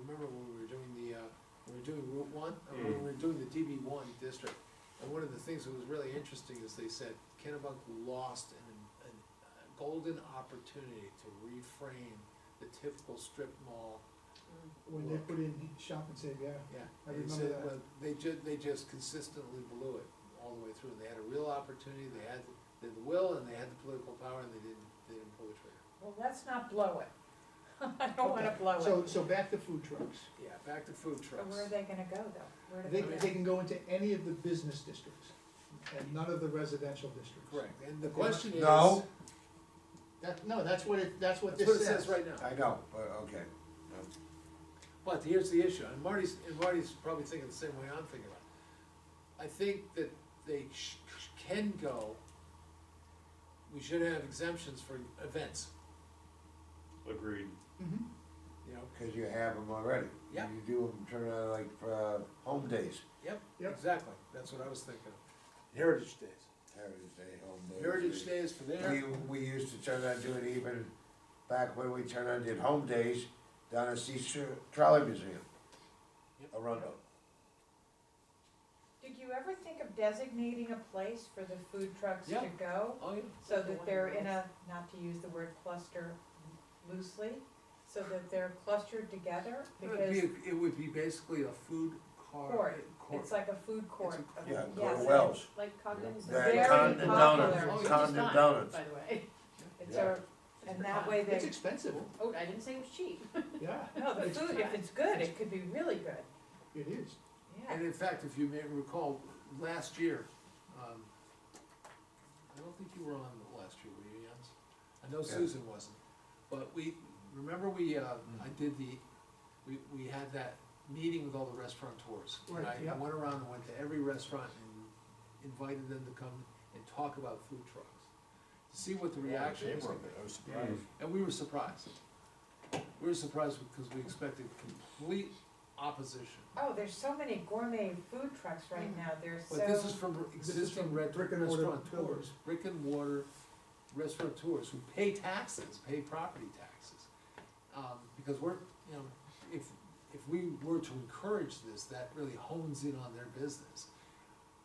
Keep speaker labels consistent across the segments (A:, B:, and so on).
A: remember when we were doing the, uh, when we were doing Route One, or when we were doing the DB one district. And one of the things that was really interesting is they said Kennebunk lost an, an, a golden opportunity to reframe the typical strip mall.
B: when they put in shop and save, yeah.
A: Yeah.
B: I
A: and he
B: remember
A: said,
B: that.
A: well, They ju- they just consistently blew it all the way through. They had a real opportunity, they had, they had the will and they had the political power and they didn't, they didn't pull the trigger.
C: Well, let's not blow it. Oh, I don't wanna blow
B: So,
C: it.
B: so back to food trucks.
A: Yeah, back to food
C: But
A: trucks.
C: where are they gonna go though? Where do
B: They,
C: go?
B: they can go into any of the business districts and none of the residential districts.
A: Correct, and the question is.
D: No.
B: That, no, that's what it, that's what
A: That's what it
B: this
A: says
B: says.
A: right now.
D: I know, but, okay.
A: But here's the issue, and Marty's, and Marty's probably thinking the same way I'm thinking about it. I think that they sh- sh- can go, we should have exemptions for events,
E: Agreed.
B: Mhm.
A: you know?
D: Cause you have them already.
A: Yep.
D: You do them, turn out like, uh, home days,
A: Yep,
B: Yep.
A: exactly, that's what I was thinking of. Heritage Days.
D: Heritage Day, home days.
A: Heritage Days for
D: We,
A: their,
D: we used to turn out, do it even back when we turned out, did home days down at Seashore Trolley Museum.
A: Yep.
D: Arundel.
C: Did you ever think of designating a place for the food trucks to
A: Yeah.
C: go?
A: oh, yeah,
C: So that they're in a, not to use the word cluster loosely, so that they're clustered together?
A: it would be,
C: Because
A: it would be basically a food court.
C: Court. it's like a food court.
A: It's a
C: of-
D: Yeah,
C: yes,
D: Gordon Wells.
F: Like Cogden's.
D: Yeah,
C: Very
D: Condon Donuts,
C: popular. Oh,
A: you
D: Condon
F: Stein,
D: Donuts.
F: By the way.
C: It's a, and that way
B: It's
C: they,
B: expensive,
F: Oh, I didn't say it was cheap.
B: yeah,
C: no, the food, if it's good, it could be really good,
B: it is.
C: yeah.
A: And in fact, if you may recall, last year, um, I don't think you were on the last year, were you, Jens? I know
D: Yeah. Mm-hmm.
A: Susan wasn't, but we, remember we, uh, I did the, we, we had that meeting with all the restaurateurs. And
B: Right,
A: I
B: yeah.
A: went around and went to every restaurant and invited them to come and talk about food trucks, to see what the reaction was.
D: I was
E: surprised.
A: And we were surprised. We were surprised because we expected complete opposition.
C: Oh, there's so many gourmet food trucks right now, they're so.
A: But this is from
B: This is
A: existing
B: from
A: red-
B: brick and mortar
A: restaurateurs,
B: builders.
A: brick and mortar restaurateurs who pay taxes, pay property taxes. Um, because we're, you know, if, if we were to encourage this, that really hones in on their business.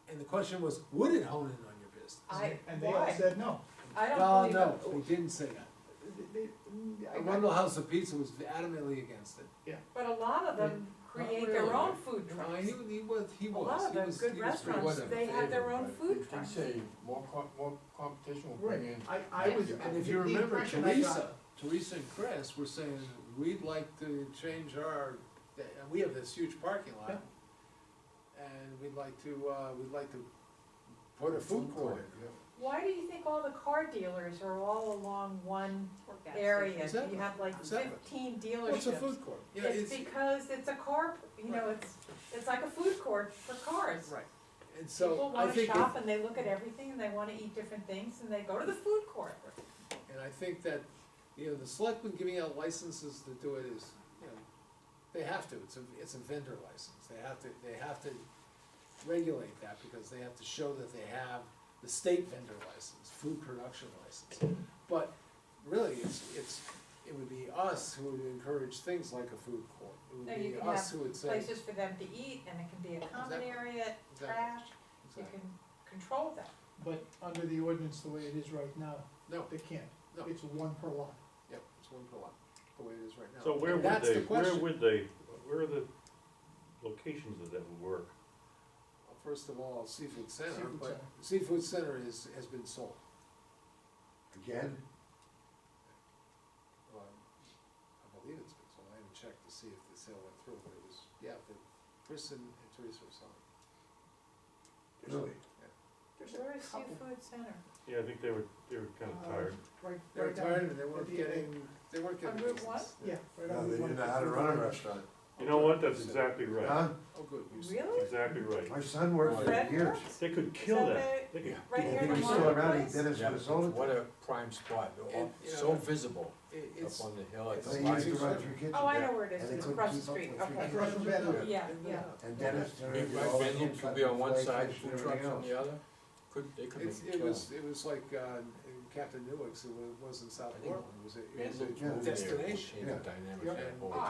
A: And the question was, would it hone in on your business?
C: I,
B: And they all
C: why?
B: said no.
C: I
A: Well,
C: don't
A: no,
C: believe it,
A: they didn't say that.
B: They- they- I- I-
A: Arundel House of Pizza was adamantly against it.
C: but a lot of them create their
A: really.
C: own food
A: No,
C: trucks.
A: he, he was, he
C: A
A: was,
C: lot of
A: he
C: them,
A: was,
C: good
A: he was pretty
C: restaurants,
A: upset.
C: they have their own food
G: They
C: trucks.
G: say more com- more competition will bring
B: Right,
G: in.
B: I, I was.
A: And if
B: the-
A: you
B: the
A: remember
B: impression I got-
A: Teresa, Teresa and Chris were saying, we'd like to change our, and we have this huge parking lot. And we'd like to, uh, we'd like to put a food court.
C: Why do you think all the car dealers are all along one area?
A: Exactly,
C: You have like
A: exactly.
C: fifteen
A: Well, It's a
C: dealerships.
A: food court. Yeah,
C: It's
A: it's,
C: because it's a car, you know, it's, it's like a food court for cars.
A: right. And so
C: People
A: I
C: wanna
A: think,
C: shop
A: that-
C: and they look at everything and they wanna eat different things and they go to the food court.
A: and I think that, you know, the selectmen giving out licenses to do it is, you know, they have to, it's a, it's a vendor license. They have to, they have to regulate that because they have to show that they have the state vendor license, food production license. But really, it's, it's, it would be us who would encourage things like a food court.
C: No,
A: It
C: you
A: would
C: can
A: be us
C: have
A: who would say.
C: Places for them to eat and it can be a common
A: Exactly.
C: area,
A: Exactly.
C: trash, you
A: Exactly.
C: can control that.
B: But under the ordinance, the way it is right now,
A: No,
B: they can't.
A: No.
B: It's one per lot.
A: yep, it's one per lot, the way it is right now.
E: So where
A: And
E: would
A: that's
E: they,
A: the
E: where
A: question.
E: would they, where are the locations that that would work?
A: Well, First of all, Seafood Center,
B: Seafood
A: but
B: Center.
A: Seafood Center is, has been sold.
D: Again,
A: Um, I believe it's been sold, I haven't checked to see if the sale went through, but it was, yeah, the, Chris and and Teresa were selling.
D: really,
B: There's a
C: Where is
B: couple.
C: Seafood Center?
E: Yeah, I think they were, they were kind
B: Uh,
E: of tired.
B: Right,
A: They were
B: right down
A: tired
B: here
A: and they
B: at
A: weren't
B: the end.
A: getting, they weren't getting
C: On Route
A: business.
B: Yeah. right
D: no,
B: on
D: they
B: the
D: didn't know
B: one-
D: how to run a restaurant,
E: You know what,
A: Uh,
E: that's exactly right,
D: huh?
A: Oh, good. you said-
C: Really?
E: exactly right.
D: My son worked there
C: Fred
D: for years.
C: Brooks?
E: They could
C: Is
E: kill that.
C: the-
E: They could
C: Right
D: Yeah,
C: here in
D: they
C: the
D: were still around,
C: marketplace?
D: he did it
G: Yeah,
D: for his own.
G: What a prime spot, They're all
A: And, you
G: so
A: know,
G: visible
A: It,
G: up
A: it's.
G: on the hill. at the
D: They
G: light.
D: used to run through kitchen.
C: Oh, I know where it is,
D: And they
C: it's
D: couldn't
C: across the
D: keep up
C: street,
D: with
C: okay.
D: three
B: Across from Bedlam.
A: Yeah,
C: Yeah,
A: and, uh,
C: yeah.
D: And Dennis turned
G: Big
D: it
G: red
D: all
G: venue
D: in,
G: could be on one
D: cut
G: side,
D: the flakes
G: food
D: and
G: trucks on
D: everything
G: the other, could, they could make
A: It's,
G: a
A: it
G: killing.
A: was, it was like, uh, in Captain Newark's, it wa- wasn't South
G: I think
A: Portland, it was a, it
G: Van
A: was
G: Luke moved
A: a
G: there,
A: destination.
G: changed the
D: Yeah.
G: dynamic of
A: Yeah.
G: that whole
C: Ah,